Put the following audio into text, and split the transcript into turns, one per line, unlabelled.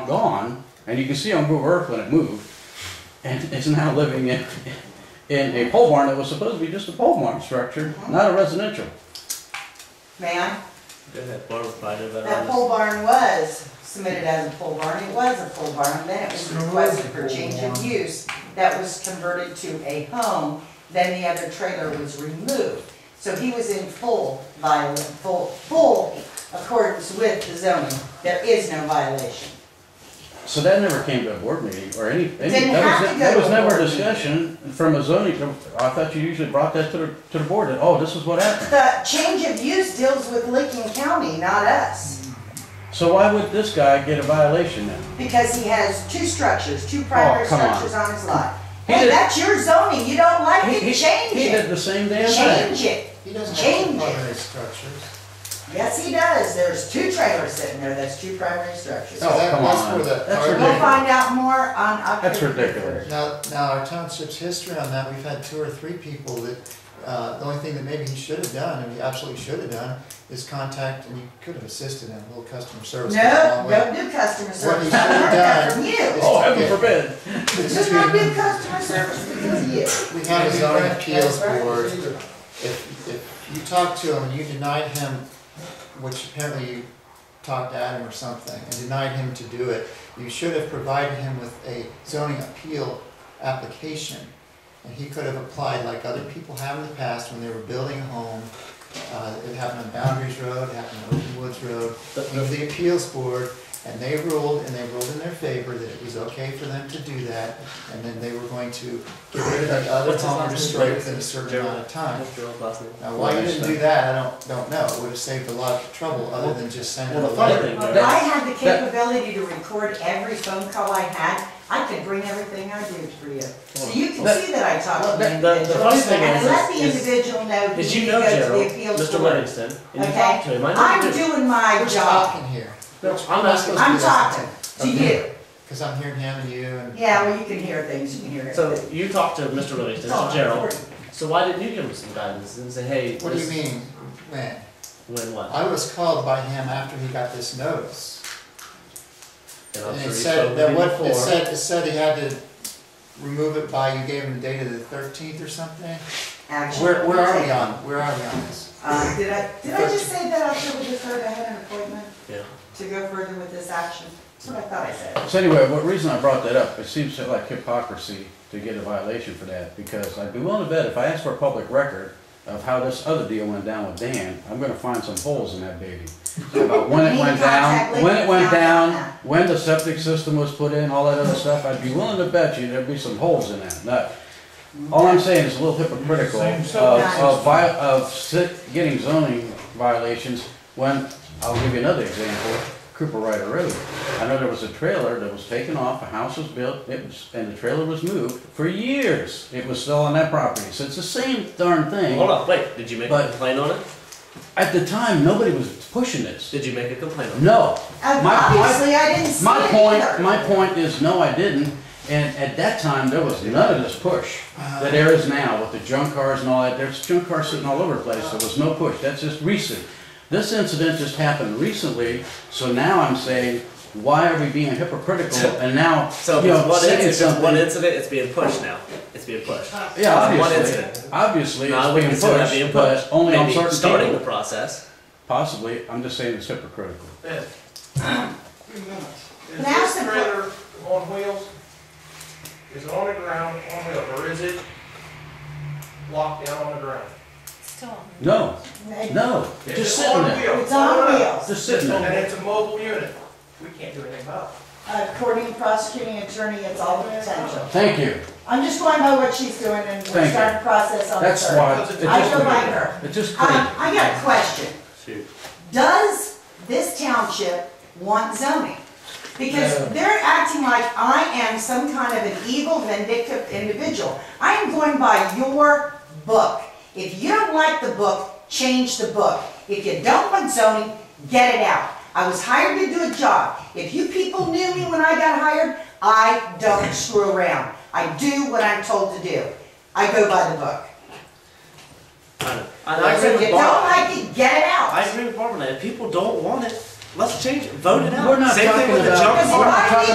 And you can see on Google Earth when it moved, and it's now living in, in a pole barn that was supposed to be just a pole barn structure, not a residential.
Ma'am,
Go ahead, Barb, find it
that
better.
pole barn was submitted as a pole barn, it was a pole barn, then it was
Sure was a
requested for
pole
change of
barn.
use that was converted to a home, then the other trailer was removed. So he was in full viola, full, full accordance with the zoning, there is no violation.
So that never came to a board meeting or any, any-
Didn't
that
have
was,
to
that
go
was
to a
never
board
discussion from a zoning, I thought you usually brought that to the, to the board, that, oh, this is what happened.
The change of use deals with Licking County, not us,
So why would this guy get a violation then?
because he has two structures, two primary
Oh, come on.
structures on his lot.
He
Hey,
did-
that's your zoning, you don't like
He-
it,
he-
change
He
it,
did the same damn thing.
change it.
He doesn't have
Change
to
it.
primary structures.
Yes, he does. There's two trailers sitting there. That's two primary structures.
So
Oh,
that-
come
that's
on.
where
That's
that part-
We'll
ridiculous.
find out more on October.
That's ridiculous.
Now, now our township's history on that, we've had two or three people that, uh, the only thing that maybe he should have done, and he absolutely should have done, is contact, and you could have assisted him, a little customer service. goes a
No,
long way.
don't do customer
What
service.
he
I
should've
learned that
done
from you.
Oh, heaven forbid.
Just not do customer service because of you.
We have a zoning appeals
That's right.
board, if, if you talked to him and you denied him, which apparently you talked at him or something, and denied him to do it, you should have provided him with a zoning appeal application. And he could have applied like other people have in the past when they were building a home. Uh, it happened on Boundaries Road, it happened on Open Woods Road, went to the appeals board, and they ruled, and they ruled in their favor that it was okay for them to do that, and then they were going to get rid of that other
What's his
home
last
and
name?
destroy it within a certain amount of time.
What's Gerald's last name?
Now, why you didn't do that, I don't, don't know, it would have saved a lot of trouble, other than just sending
Well,
a
the funny
letter.
thing,
I
Barb,
had the capability to record every phone call I had. I could bring everything I did for you. So you can
That-
see that I talked to the
that- the- the
individual.
funny thing
And
is-
let the
is-
individual know
did
he
you
needs to
know
go to
Gerald,
the appeals
Mr.
board.
Livingston, and you
Okay?
talked to him? I know you
I'm
did.
doing my
We're
job.
talking here.
No, I'm not supposed
I'm talking to
Okay.
you.
Because I'm hearing him and you and.
Yeah, well, you can hear things, you can hear
to.
it. Oh,
So you talked to Mr. Livingston,
It's all
Mr. Gerald.
recorded.
So why didn't you give him some guidance and say, hey?
What do you
this-
mean, when?
When what?
I was called by him after he got this notice.
And I'm
And
sure
it
you
said,
spoke
that
with him
what, it
before.
said, it said he had to remove it by, you gave him the date of the thirteenth or something?
Action.
Where, where are we on, where are we on this?
Uh, did I, did I just say that October the third, I had an appointment
Yeah.
to go further with this action? That's what I thought I said.
So anyway, what reason I brought that up, it seems like hypocrisy to get a violation for that, because I'd be willing to bet if I asked for a public record of how this other deal went down with Dan, I'm gonna find some holes in that baby. About when it
Need to
went
contact
down, when it went
Lincoln County.
down, when the septic system was put in, all that other stuff, I'd be willing to bet you there'd be some holes in that nut. All I'm saying is a little hypocritical
Same
of,
stuff.
of vi- of uh, sit, getting zoning violations when, I'll give you another example, Cooper Rider Road. I know there was a trailer that was taken off, a house was built, it was, and the trailer was moved for years. It was still on that property, so it's the same darn
Hold
thing.
on, wait, did you make a
But-
complaint on it?
At the time, nobody was pushing this.
Did you make a complaint on it?
No.
And
My point-
Obviously, I didn't see it
My point,
either.
my point is, no, I didn't, and at that time, there was none of this push that there is now with the junk cars and all that, there's junk cars sitting all over the place, there was no push, that's just recent. This incident just happened recently, so now I'm saying, why are we being hypocritical and now,
So if
you
it's
know,
one
saying
incident, if it's one
something?
incident, it's being pushed now. It's being pushed.
Yeah,
it's one
obviously,
incident.
obviously
No, I wouldn't
it's
consider that
being
being
pushed, but
pushed.
only on
Maybe
certain
starting the
people,
process.
possibly, I'm just saying it's hypocritical.
Wait a minute. Is
Now
this
some-
trailer on wheels? Is it on the ground, on wheels, or is it locked down on the ground?
No, no,
It's
just sitting
on
there,
wheels.
It's on wheels.
just sitting there.
And it's a mobile unit. We can't do anything about it.
According to prosecuting attorney, it's all potential.
Thank you.
I'm just going by what she's doing and we're
Thank you.
starting the process on the
That's
third.
why, it's
I
just,
don't like
crazy.
her.
it's just crazy.
Um, I got a question.
Shoot.
Does this township want zoning? Because they're acting like I am some kind of an evil vindictive individual. I am going by your book. If you don't like the book, change the book. If you don't want zoning, get it out. I was hired to do a job. If you people knew me when I got hired, I don't screw around. I do what I'm told to do. I go by the book.
I know. And I agree
If you
with
don't
Barb.
like it, get it out.
I agree with Barbara. If people don't want it, let's change it. Vote it out.
We're not
Same thing
talking
with the
about-
junk
Because if
car.
I leave